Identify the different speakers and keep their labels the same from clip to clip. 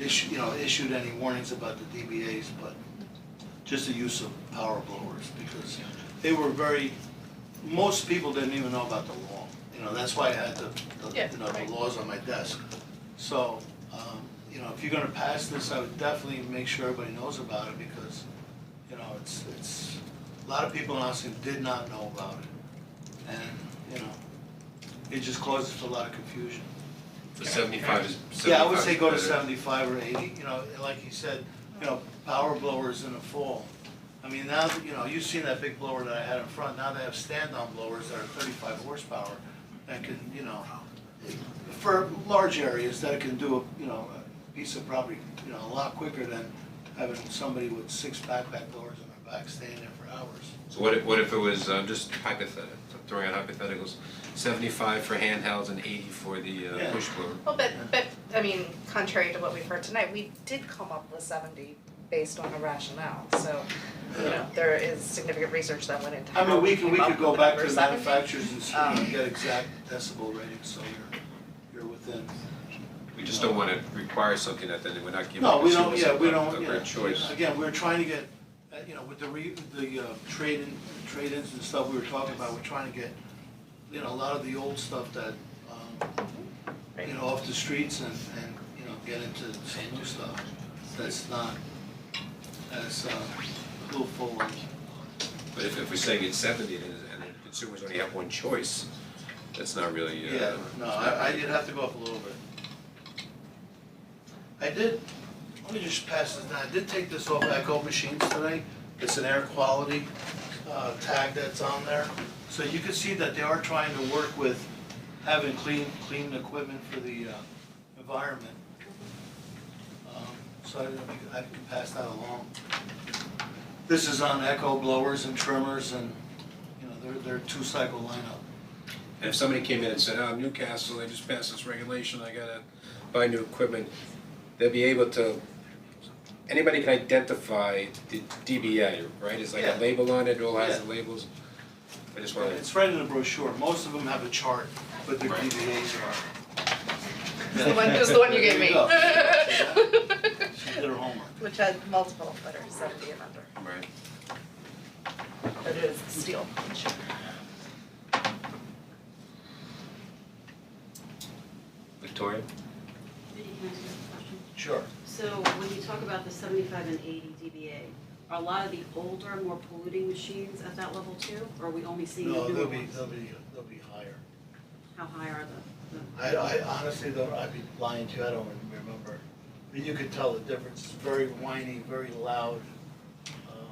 Speaker 1: issue, you know, issued any warnings about the DBAs, but just the use of power blowers, because they were very, most people didn't even know about the law. You know, that's why I had the, the,
Speaker 2: Yeah,
Speaker 1: you know,
Speaker 2: right.
Speaker 1: the laws on my desk. So, um, you know, if you're gonna pass this, I would definitely make sure everybody knows about it, because, you know, it's, it's, a lot of people in Austin did not know about it. And, you know, it just causes a lot of confusion.
Speaker 3: The seventy-five is, seventy-five
Speaker 1: Yeah, I would say go to
Speaker 3: is better.
Speaker 1: seventy-five or eighty, you know, like you said, you know, power blowers in the fall. I mean, now, that, you know, you've seen that big blower that I had in front, now they have stand-on blowers that are thirty-five horsepower that can, you know, for large areas that can do, a you know, a piece of property, you know, a lot quicker than having somebody with six backpack blowers on their back staying there for hours.
Speaker 3: So what if, what if it was, um, just hypothetical, throwing out hypotheticals, seventy-five for handhelds and eighty for the uh,
Speaker 1: Yeah.
Speaker 3: push blower?
Speaker 2: Well, but, but, I mean, contrary to what we've heard tonight, we did come up with seventy based on a rationale, so, you know, there is significant research that went into
Speaker 1: I
Speaker 2: how
Speaker 1: mean,
Speaker 2: we
Speaker 1: we could, we
Speaker 2: came up
Speaker 1: could
Speaker 2: with
Speaker 1: go
Speaker 2: the
Speaker 1: back to
Speaker 2: number
Speaker 1: the
Speaker 2: seventy.
Speaker 1: manufacturers and see,
Speaker 2: Um,
Speaker 1: and get exact decibel ratings, so you're, you're within.
Speaker 3: We just don't wanna require something that then we're not giving
Speaker 1: No, we don't,
Speaker 3: consumers a,
Speaker 1: yeah, we
Speaker 3: a-
Speaker 1: don't,
Speaker 3: a
Speaker 1: yeah.
Speaker 3: great choice.
Speaker 1: Again, we're trying to get, uh, you know, with the re, the uh, trade-in, trade-ins and stuff we were talking about, we're trying to get, you know, a lot of the old stuff that, um, you know, off the streets and, and, you know, get into some new stuff that's not as, uh, full and,
Speaker 3: But if, if we're saying it's seventy and, and the consumers only have one choice, that's not really, uh.
Speaker 1: yeah, no, I, I did have to go up a little bit. I did, let me just pass this down, I did take this off Echo Machines today, it's an air quality, uh, tag that's on there. So you can see that they are trying to work with having clean, clean equipment for the, uh, environment. Um, So I, didn't- I can pass that along. This is on echo blowers and trimmers and, you know, they're, they're two-cycle lineup.
Speaker 3: And if somebody came in and said, oh, Newcastle, they just passed this regulation, I gotta buy new equipment, they'll be able to, anybody can identify the DBA, right? It's like
Speaker 1: Yeah.
Speaker 3: a label on it, it all has the
Speaker 1: Yeah.
Speaker 3: labels. I just wanna,
Speaker 1: It's right in the brochure, most of them have a chart, but their
Speaker 3: Right.
Speaker 1: DVAs are.
Speaker 2: It's the one, it was the one you gave me.
Speaker 1: There you go. She did her homework.
Speaker 2: Which had multiple that are seventy and under,
Speaker 3: right,
Speaker 2: but it is steel.
Speaker 3: Victoria?
Speaker 4: Can I ask you a question?
Speaker 1: Sure.
Speaker 4: So when you talk about the seventy-five and eighty DBA, are a lot of the older, more polluting machines at that level too? Or are we only seeing
Speaker 1: No,
Speaker 4: the newer
Speaker 1: they'll be,
Speaker 4: ones?
Speaker 1: they'll be, they'll be higher.
Speaker 4: How high are the, the?
Speaker 1: I, I honestly don't, I'd be lying to you, I don't remember. But You could tell the difference, it's very whiny, very loud. Um,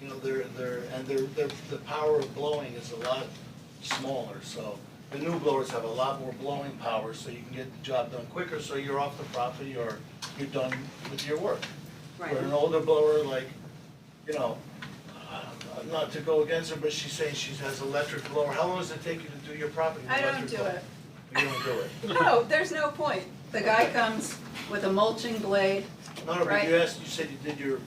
Speaker 1: You know, they're, they're, and they're, they're, the power of blowing is a lot smaller, so. The new blowers have a lot more blowing power, so you can get the job done quicker, so you're off the property or you're done with your work. Where an
Speaker 4: Right,
Speaker 1: older blower, like, you know, uh, not to go against her, but she's saying she has electric blower, how long does it take you to do your property? with
Speaker 5: I don't
Speaker 1: electric
Speaker 5: do
Speaker 1: blower?
Speaker 5: it.
Speaker 1: You don't do it.
Speaker 5: No, there's no point. The guy comes with a mulching blade.
Speaker 1: No, no, but
Speaker 5: Right.
Speaker 1: you asked, you said you did your,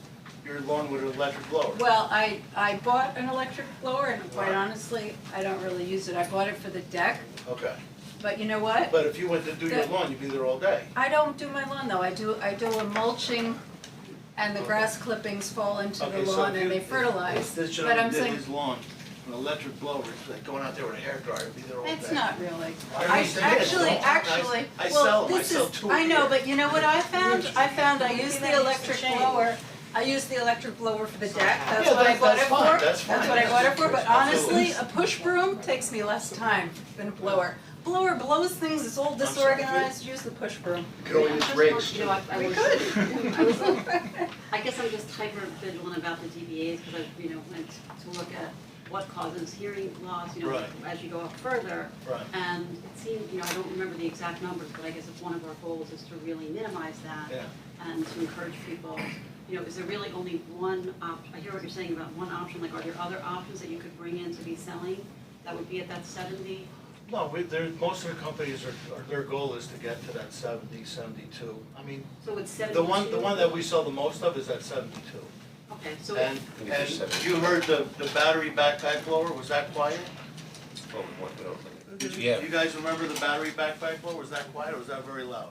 Speaker 1: your lawn with an electric blower.
Speaker 5: Well, I, I bought an electric blower and quite
Speaker 1: Right.
Speaker 5: honestly, I don't really use it. I bought it for the deck,
Speaker 1: Okay,
Speaker 5: but you know what?
Speaker 1: but if you went to do your
Speaker 5: Good.
Speaker 1: lawn, you'd be there all day.
Speaker 5: I don't do my lawn though. I do, I do a mulching and the grass clippings fall into the
Speaker 1: Okay, so
Speaker 5: lawn
Speaker 1: if
Speaker 5: and
Speaker 1: you-
Speaker 5: they fertilize.
Speaker 1: If this
Speaker 5: But
Speaker 1: gentleman
Speaker 5: I'm
Speaker 1: did
Speaker 5: saying,
Speaker 1: his lawn, an electric blower, it's like going out there with a hair dryer, be there all day.
Speaker 5: it's not really.
Speaker 1: I
Speaker 5: I
Speaker 1: understand.
Speaker 5: actually,
Speaker 1: I-
Speaker 5: actually,
Speaker 1: I sell
Speaker 5: well,
Speaker 1: 'em. I
Speaker 5: this
Speaker 1: sell
Speaker 5: is,
Speaker 1: two a
Speaker 5: I know,
Speaker 1: year.
Speaker 5: but you know what I found? I found I used
Speaker 6: Maybe
Speaker 5: the
Speaker 6: that needs to
Speaker 5: electric
Speaker 6: change.
Speaker 5: blower, I used the electric blower for the deck, that's
Speaker 1: Yeah,
Speaker 5: what I
Speaker 1: that-
Speaker 5: bought
Speaker 1: that's
Speaker 5: it for.
Speaker 1: fine, that's fine,
Speaker 5: what I
Speaker 1: that's
Speaker 5: bought it for, but
Speaker 1: absolutely.
Speaker 5: honestly, a push broom takes me less time than a blower. Blower blows things, it's
Speaker 1: sorry,
Speaker 5: all
Speaker 1: Judy.
Speaker 5: disorganized, use the push broom.
Speaker 1: Could only use rakes,
Speaker 4: You know, I, I
Speaker 5: We
Speaker 4: was-
Speaker 5: could.
Speaker 4: I was- I guess I'm just hyper vigilant about the DBAs because I, you know, went to look at what causes hearing loss, you know,
Speaker 1: Right.
Speaker 4: as you go up further.
Speaker 1: Right.
Speaker 4: And Um, it seemed, you know, I don't remember the exact numbers, but I guess if one of our goals is to really minimize that.
Speaker 1: Yeah.
Speaker 4: and to encourage people, you know, is there really only one op, I hear what you're saying about one option, like are there other options that you could bring in to be selling that would be at that seventy?
Speaker 1: No, we, there, most of the companies are, are, their goal is to get to that seventy, seventy-two. I mean,
Speaker 4: So it's seventy-two?
Speaker 1: the one, the one that we sell the most of is that seventy-two.
Speaker 4: Okay, so it-
Speaker 1: And,
Speaker 3: Maybe
Speaker 1: and
Speaker 3: seven.
Speaker 1: you heard the, the battery backpack blower, was that quiet?
Speaker 3: Oh, we want- we don't-
Speaker 1: Did you,
Speaker 3: Yeah.
Speaker 1: you guys remember the battery backpack blower, was that quiet or was that very loud?